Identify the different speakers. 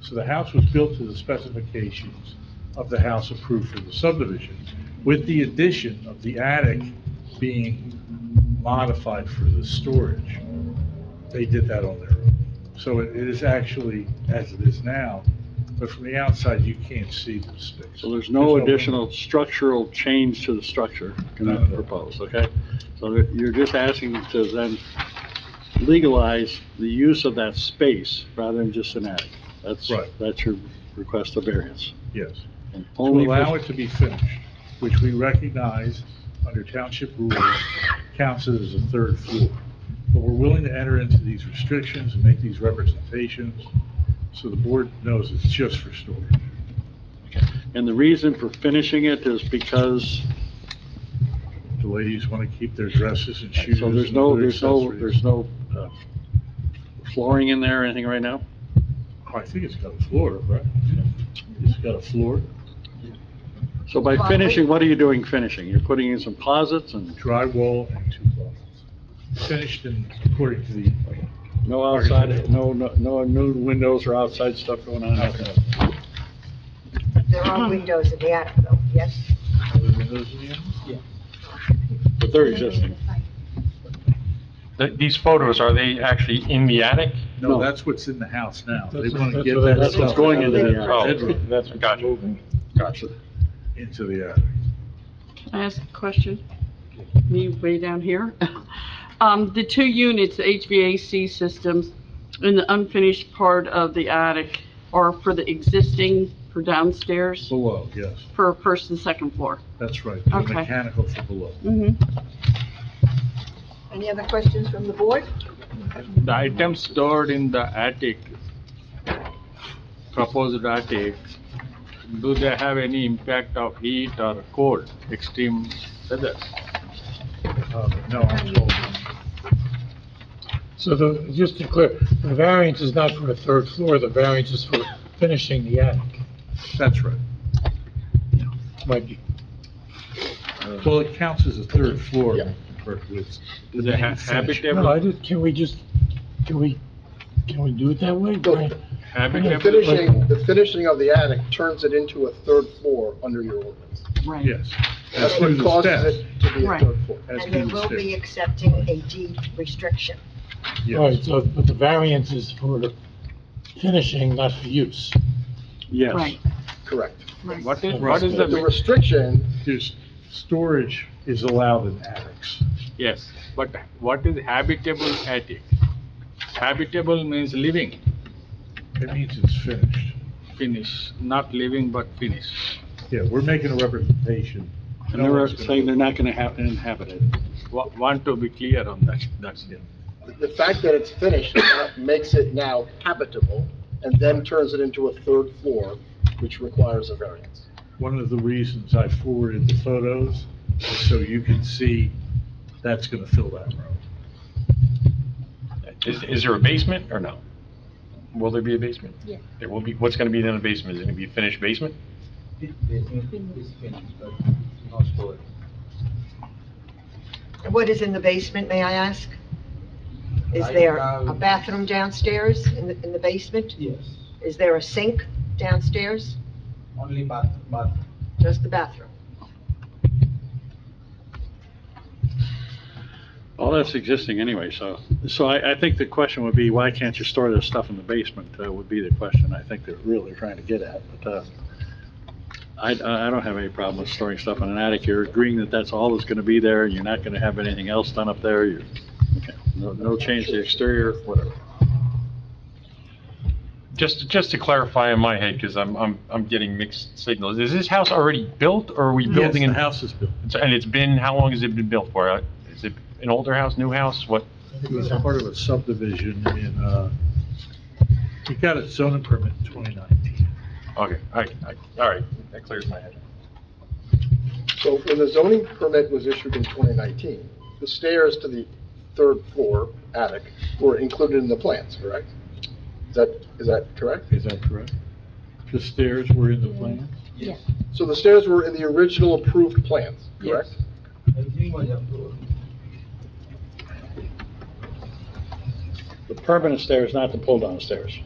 Speaker 1: So the house was built to the specifications of the house approved for the subdivision, with the addition of the attic being modified for the storage. They did that on their own. So it it is actually, as it is now, but from the outside, you can't see the space.
Speaker 2: So there's no
Speaker 1: window.
Speaker 2: additional structural change to the structure
Speaker 1: No.
Speaker 2: proposed, okay? So that- you're just asking to then legalize the use of that space rather than just an attic. That's,
Speaker 1: Right.
Speaker 2: that's your request of variance.
Speaker 1: Yes.
Speaker 2: And
Speaker 1: to
Speaker 2: only for-
Speaker 1: allow it to be finished, which we recognize under township rules counts it as a third floor. But we're willing to enter into these restrictions and make these representations, so the board knows it's just for storage.
Speaker 2: And the reason for finishing it is because,
Speaker 1: The ladies want to keep their dresses and shoes.
Speaker 2: so there's
Speaker 1: and
Speaker 2: no,
Speaker 1: other
Speaker 2: there's no,
Speaker 1: accessories.
Speaker 2: there's no uh, flooring in there or anything right now?
Speaker 1: I think it's got a floor, right? It's got a floor,
Speaker 2: So by
Speaker 3: Well, I-
Speaker 2: finishing, what are you doing finishing? You're putting in some closets and
Speaker 1: drywall, and two closets. Finished in, according to the,
Speaker 2: no outside, no, no, no new windows or outside stuff going on?
Speaker 1: Okay.
Speaker 3: There are windows in the attic, though, yes?
Speaker 1: are there windows in the end?
Speaker 2: But they're existing.
Speaker 4: Th- These photos, are they actually in the attic?
Speaker 1: No,
Speaker 2: No.
Speaker 1: that's what's in the house now. They
Speaker 5: That's-
Speaker 1: want to
Speaker 5: that's
Speaker 1: get
Speaker 5: what-
Speaker 1: that
Speaker 2: That's what's
Speaker 1: stuff
Speaker 2: going into the
Speaker 4: Oh,
Speaker 2: attic.
Speaker 1: bedroom.
Speaker 4: that's, gotcha, gotcha.
Speaker 3: Oh.
Speaker 1: into the attic.
Speaker 6: Can I ask a question? Me way down here? Um, the two units, the HVAC systems in the unfinished part of the attic are for the existing, for downstairs,
Speaker 1: Below, yes,
Speaker 6: for first and second floor.
Speaker 1: that's right. The
Speaker 6: Okay.
Speaker 1: Mechanical for below.
Speaker 6: Mm-hmm.
Speaker 3: Any other questions from the board?
Speaker 5: The items stored in the attic, proposed attic, do they have any impact of heat or cold, extreme weather?
Speaker 1: Um, No, I'm told,
Speaker 7: So the, just to clear, the variance is not for a third floor, the variance is for finishing the attic,
Speaker 1: that's right.
Speaker 7: might be.
Speaker 1: Well, it counts as a third floor
Speaker 5: Yeah.
Speaker 1: compared with the
Speaker 5: Is it ha-
Speaker 1: main section.
Speaker 7: No, I
Speaker 5: habitable?
Speaker 7: just, can we just, can we, can we do it that way? Brian?
Speaker 5: habitable?
Speaker 8: Finishing, the finishing of the attic turns it into a third floor under your ordinance.
Speaker 6: Right.
Speaker 1: Yes. As
Speaker 8: That's
Speaker 1: do
Speaker 8: what
Speaker 1: the
Speaker 8: causes
Speaker 1: steps,
Speaker 8: it to be a
Speaker 6: Right.
Speaker 8: third floor.
Speaker 1: as
Speaker 3: And
Speaker 1: do
Speaker 3: they
Speaker 1: the
Speaker 3: will be
Speaker 1: steps.
Speaker 3: accepting a deed restriction.
Speaker 1: Yes.
Speaker 7: All right, so, but the variance is for finishing, not for use.
Speaker 2: Yes.
Speaker 6: Right.
Speaker 8: Correct.
Speaker 5: What is, what is
Speaker 8: The
Speaker 5: the,
Speaker 8: restriction,
Speaker 1: There's, storage is allowed in attics.
Speaker 5: yes, but what is habitable attic? Habitable means living,
Speaker 1: It means it's finished.
Speaker 5: finish, not living but finish.
Speaker 1: Yeah, we're making a representation.
Speaker 2: And
Speaker 1: No
Speaker 2: they're
Speaker 1: one's gonna-
Speaker 2: saying they're not gonna have, inhabit it.
Speaker 5: Wa- Want to be clear on that, that's it.
Speaker 8: the fact that it's finished makes it now habitable and then turns it into a third floor, which requires a variance.
Speaker 1: One of the reasons I forwarded the photos is so you can see that's going to fill that room.
Speaker 4: Is, is there a basement or no? Will there be a basement? Yeah. There will be, what's gonna be in the basement? Is it gonna be a finished basement?
Speaker 3: And What is in the basement, may I ask? Is there a bathroom downstairs in the, in the basement?
Speaker 9: Yes,
Speaker 3: Is there a sink downstairs?
Speaker 9: only bath, bath.
Speaker 3: Just the bathroom?
Speaker 2: All that's existing anyway, so, so I, I think the question would be, why can't you store this stuff in the basement? Uh, would be the question I think they're really trying to get at, but, uh, I, I I don't have any problem with storing stuff in an attic. You're agreeing that that's all that's gonna be there, you're not gonna have anything else done up there, you're, okay, no, no change to the exterior, whatever.
Speaker 4: Just, just to clarify in my head, because I'm, I'm, I'm getting mixed signals. Is this house already built or are we building?
Speaker 1: Yes,
Speaker 4: in
Speaker 1: the house is built.
Speaker 4: And it's been, how long has it been built for? Uh, Is it an older house, new house? What?
Speaker 1: It was part of a subdivision in, uh, we got a zoning permit in 2019.
Speaker 4: Okay, all right, I- all right, that clears my head.
Speaker 8: So when the zoning permit was issued in 2019, the stairs to the third floor attic were included in the plans, correct? Is that, is that correct?
Speaker 1: Is that correct? The stairs were in the plan?
Speaker 9: Yes.
Speaker 8: So the stairs were in the original approved plans, correct?
Speaker 9: Yes. Everything was approved.
Speaker 2: The permanent stairs, not the pull-down stairs.